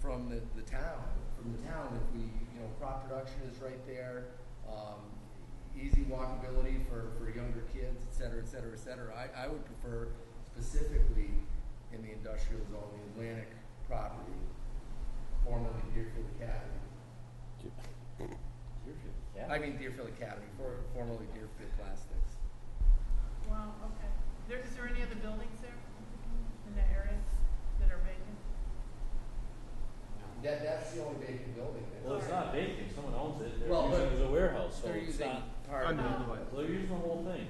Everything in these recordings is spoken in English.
from the, the town, from the town, if we, you know, crop production is right there, um, easy walkability for, for younger kids, et cetera, et cetera, et cetera. I, I would prefer specifically in the industrial zone, the Atlantic property, formerly Deerfield Academy. I mean Deerfield Academy, for- formerly Deerfield Plastics. Wow, okay. There, is there any other buildings there in the areas that are vacant? That, that's the only vacant building that. Well, it's not vacant, someone owns it, they're Well, using it but as a warehouse, so They're it's using not, part of it. they're using the whole thing.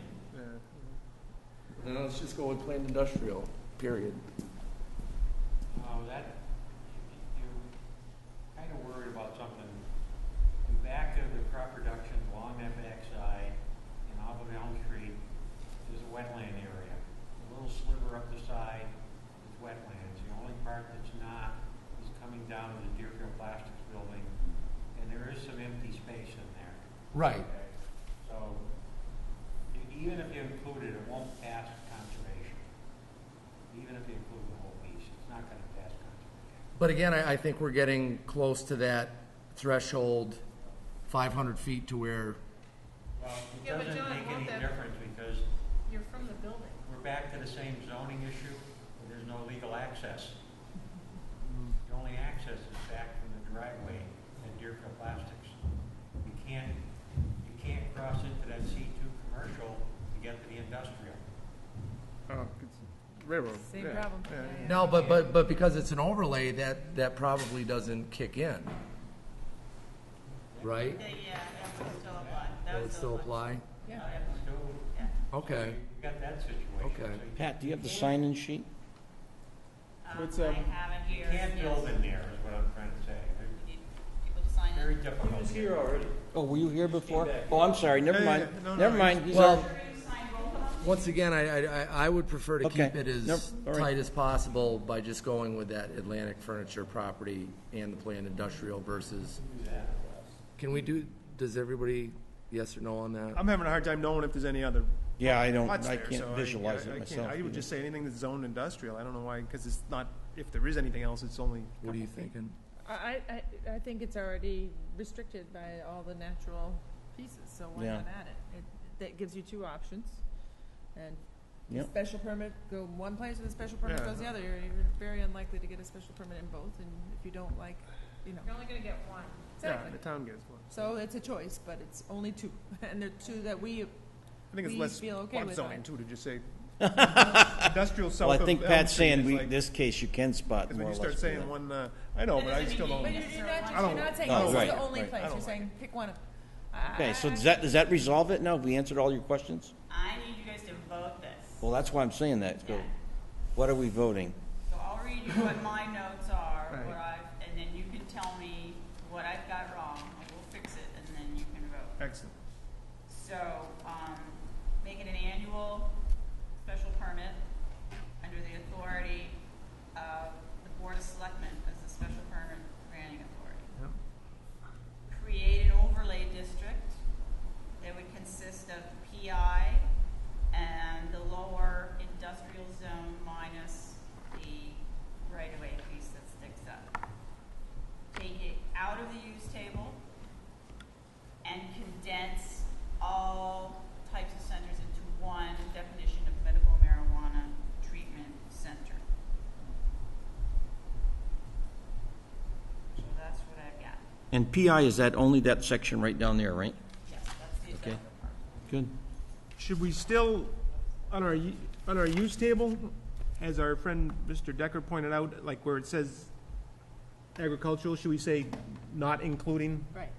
No, let's just go with plain industrial, period. Oh, that, you're kind of worried about something. The back of the crop production along that backside in off of Elm Street is a wetland area. A little sliver up the side is wetlands. The only part that's not is coming down to the Deerfield Plastics Building, and there is some empty space in there. Right. Okay, So, e- even if you include it, it won't pass conservation. Even if you include the whole piece, it's not gonna pass conservation. But again, I, I think we're getting close to that threshold, five hundred feet to where. Well, it Yeah, but doesn't John, make won't any that- difference because You're from the building. we're back to the same zoning issue. where There's no legal access. The only access is back from the driveway at Deerfield Plastics. You can't, you can't cross into that C two commercial to get to the industrial. Oh, it's railroad. Same yeah, problem. yeah, Yeah, yeah. No, but, but, but because it's an overlay, that, that probably doesn't kick in. Right? Yeah, that would still apply. That would still apply? Yeah. So, Okay, you got that situation. Okay. So you Pat, do you have the sign-in sheet? Um, What's, I um, have it You here. can't yes. build in there, is what I'm trying to say. You need People to sign It's in. Very difficult. He was here already. Oh, were you here before? back. Oh, I'm sorry, never Yeah, yeah, mind, yeah. No, no, never it's- mind. He's Well- already- You sign both of them? once again, I, I, I- I would prefer to keep Okay. it Nope. as All right. tight as possible by just going with that Atlantic furniture property and the planned industrial versus. Can we do, does everybody, yes or no on that? I'm having a hard time knowing if there's any other Yeah, I don't, lots I there. so can't visualize I it can't- myself. I would either. just say anything that's zoned industrial. I don't know why, because it's not, if there is anything else, it's only. What are you thinking? I, I, I- I think it's already restricted by all the natural pieces, so why Yeah. not add it? it? That gives you two options. And the Yep. special permit, go one place and the special permit Yeah. goes the other. You're, you're very unlikely to get a special permit in both, and if you don't like, you know. You're only gonna get one. Yeah, Exactly. the town gets one. So it's a choice, but it's only two, and they're two that we, I think it's We less feel okay fun with zoning that. too, to just say industrial south Well, I of. think Elm Pat's Street saying, is we, like- this case, you can spot Because when more or you less. start for saying that. one, uh, I know, but I still mean don't. you but Yeah. you're not, I don't you're not saying No, this is right, the only right. I place. don't You're saying pick one. of- I- I- Okay, so I- does that, does that resolve it now? Have we answered all your questions? I need you guys to vote this. Well, that's why I'm saying that. So What are we voting? So I'll read you what my notes are, Right. what I've, and then you can tell me what I've got wrong, and we'll fix it, and then you can vote. Excellent. So, um, make it an annual special permit under the authority of the Board of Selectmen as the special permit granting authority. create an overlay district that would consist of PI and the lower industrial zone minus the right-of-way piece that sticks up. Take it out of the use table and condense all types of centers into one definition of medical marijuana treatment center. So that's what I've got. And PI is that only that section right down there, right? Yes, that's the Okay. industrial part. Good. Should we still, on our, u- on our use table, as our friend Mr. Decker pointed out, like where it says agricultural, should we say not including Right.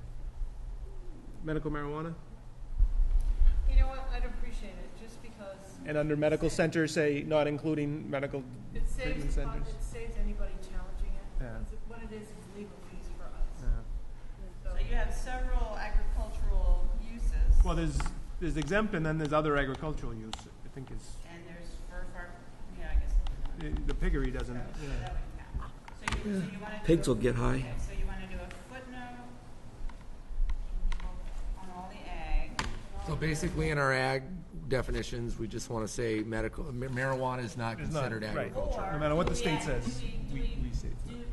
medical marijuana? You know what, I'd appreciate it, just because And under medical center, say not including medical it treatment saves, the pub- centers? it saves anybody challenging it. Yeah. It's- What it is, is legal fees for us. Yeah. So, So you have several agricultural uses, Well, there's, there's exempt and then there's other agricultural use, I think is, and there's fur farm, yeah, I guess. it's the- the piggery doesn't, not. So yeah. that would count. So you, so you wanna do. Pigs a- will get high. okay, So you wanna do a footnote on all the ag. So basically, in our ag definitions, we just want to say medical, marijuana is not It's not- considered right. agriculture. Or No matter what the do we state add- says, do we- we- we say Do we do